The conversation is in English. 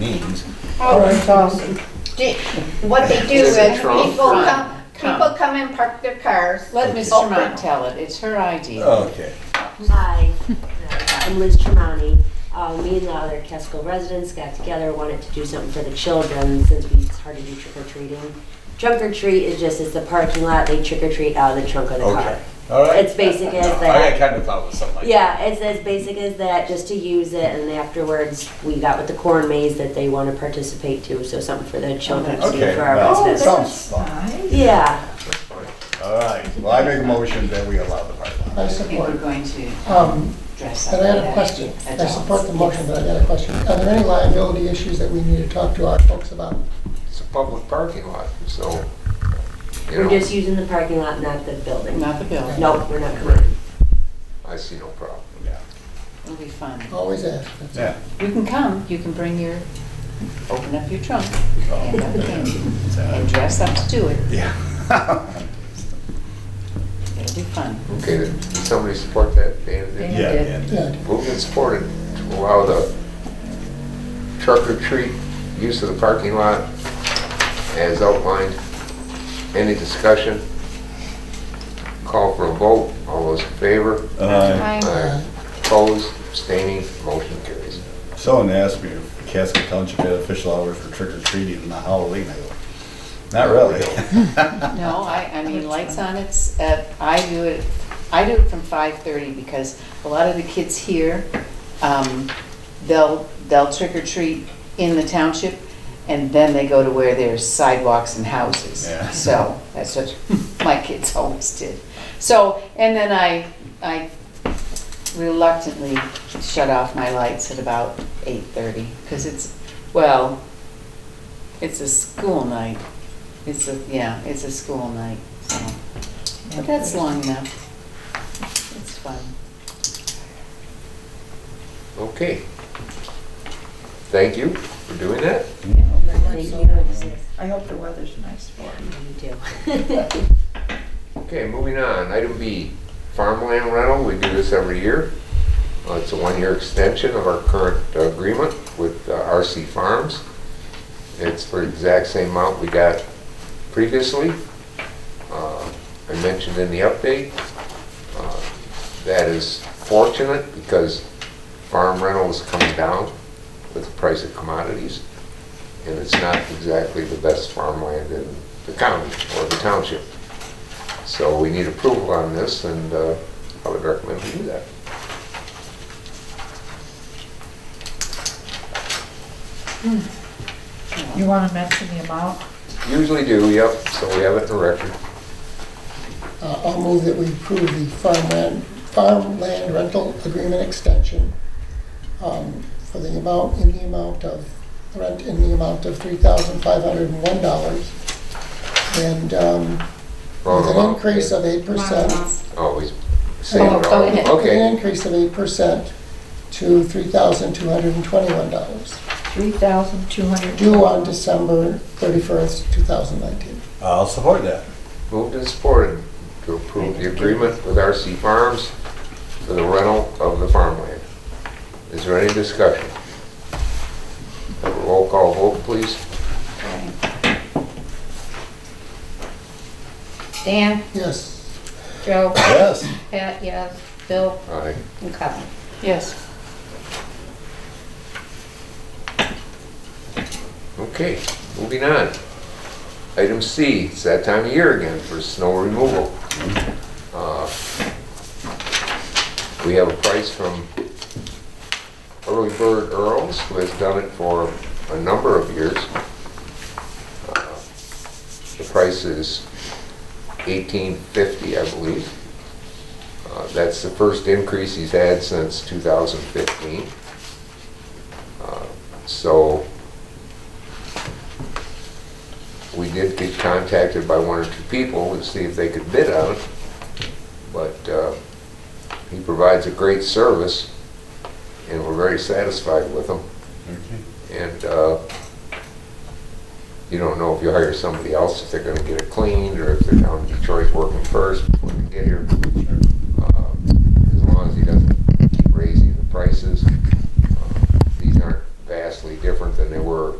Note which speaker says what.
Speaker 1: means.
Speaker 2: Oh, that's awesome.
Speaker 3: Do- What they do is
Speaker 4: Is it
Speaker 3: people
Speaker 4: Trump?
Speaker 3: come,
Speaker 2: Trump.
Speaker 3: people come and park their cars.
Speaker 2: Let Ms.
Speaker 3: Oh,
Speaker 2: Tremont tell it, it's her idea.
Speaker 1: Okay.
Speaker 5: Hi, uh, I'm Liz Tremonti. Uh, Me and the other Casco residents got together, wanted to do something for the children since we, it's hard to do trick or treating. Trunk or treat is just, it's the parking lot, they trick or treat out of the trunk of the car.
Speaker 1: Okay. All right.
Speaker 5: It's basic as
Speaker 1: No,
Speaker 5: that.
Speaker 1: I kind of thought it was something like
Speaker 5: Yeah, it's as basic as that, just to use it, and afterwards, we got with the corn maze that they want to participate to, so something for the children to do
Speaker 1: Okay.
Speaker 5: for our
Speaker 1: well,
Speaker 5: residents.
Speaker 1: Sounds fun.
Speaker 5: Yeah,
Speaker 1: All right. Well, I make a motion that we allow the parking lot.
Speaker 6: I
Speaker 4: I think we're
Speaker 6: support,
Speaker 4: going to
Speaker 6: um,
Speaker 4: dress up.
Speaker 6: and I had a
Speaker 4: that
Speaker 6: question.
Speaker 4: at
Speaker 6: I
Speaker 4: all.
Speaker 6: support the motion, but I got a question. Are there any liability issues that we need to talk to our folks about?
Speaker 7: It's a public parking lot, so, you
Speaker 5: we're
Speaker 7: know,
Speaker 5: just using the parking lot, not the building.
Speaker 4: Not the building,
Speaker 5: Nope, we're not coming.
Speaker 7: I see no problem.
Speaker 1: Yeah.
Speaker 4: it'll be fun.
Speaker 6: Always ask. That's-
Speaker 1: Yeah.
Speaker 4: You can come, you can bring your, open up your trunk and have a candy and
Speaker 1: Oh,
Speaker 4: dress up to do it.
Speaker 1: Yeah.
Speaker 4: It'll be fun.
Speaker 7: Okay, then, did somebody support that, Dan?
Speaker 1: Yeah,
Speaker 7: Did-
Speaker 1: yeah.
Speaker 6: Yeah,
Speaker 7: Moved and supported to allow the truck or treat use of the parking lot as outlined. Any discussion? Call for a vote, all those in favor?
Speaker 1: Uh,
Speaker 7: Aye. Opposed, abstaining, motion carries.
Speaker 1: Someone asked me if Casco Township had official hours for trick or treating and Halloween. I go, not really.
Speaker 4: No, I, I mean, lights on, it's, at- I do it, I do it from 5:30 because a lot of the kids here, um, they'll, they'll trick or treat in the township and then they go to where there's sidewalks and houses.
Speaker 1: Yeah.
Speaker 4: So that's what my kids always did. So, and then I, I reluctantly shut off my lights at about 8:30 because it's, well, it's a school night. It's a, yeah, it's a school night, so. But that's long enough. It's fun.
Speaker 7: Okay. Thank you for doing that.
Speaker 5: Thank you.
Speaker 8: I hope the weather's nice for
Speaker 5: You
Speaker 8: it.
Speaker 5: do.
Speaker 7: Okay, moving on, item B, farmland rental, we do this every year. Uh, It's a one-year extension of our current uh, agreement with uh, RC Farms. It's for the exact same amount we got previously. Uh, I mentioned in the update, uh, that is fortunate because farm rental is coming down with the price of commodities, and it's not exactly the best farmland in the county or the township. So we need approval on this, and uh, I would recommend we do that.
Speaker 8: You want to mention the amount?
Speaker 7: Usually do, yep, so we have it in record.
Speaker 6: Uh, I'll move that we approve the farmland, farmland rental agreement extension um, for the amount, in the amount of, rent in the amount of $3,501. And um,
Speaker 7: Roll
Speaker 6: with
Speaker 7: it
Speaker 6: an
Speaker 7: out.
Speaker 6: increase of 8%.
Speaker 7: Always say it
Speaker 4: Oh, go
Speaker 7: all.
Speaker 4: ahead.
Speaker 6: With an
Speaker 7: Okay,
Speaker 6: increase of eight percent to three thousand two hundred and twenty-one dollars,
Speaker 8: Three thousand two hundred.
Speaker 6: due on December thirty-first, two thousand nineteen.
Speaker 1: I'll support that.
Speaker 7: moved and supported to approve the agreement with RC Farms for the rental of the farmland. Is there any discussion? Have a roll call vote, please.
Speaker 2: Dan,
Speaker 6: Yes,
Speaker 2: Joe,
Speaker 1: Yes.
Speaker 2: Pat, yes, Bill,
Speaker 7: Aye.
Speaker 2: and Colin.
Speaker 4: Yes.
Speaker 7: Okay, moving on. Item C, it's that time of year again for snow removal. Uh, We have a price from Early Bird Earls, who has done it for a number of years. Uh, The price is $18.50, I believe. Uh, That's the first increase he's had since 2015. Uh, So we did get contacted by one or two people to see if they could bid on it, but uh, he provides a great service, and we're very satisfied with him. And uh, you don't know if you hire somebody else, if they're gonna get it cleaned, or if they're down in Detroit working first before they get here. Uh, As long as he doesn't keep raising the prices, uh, these aren't vastly different than there were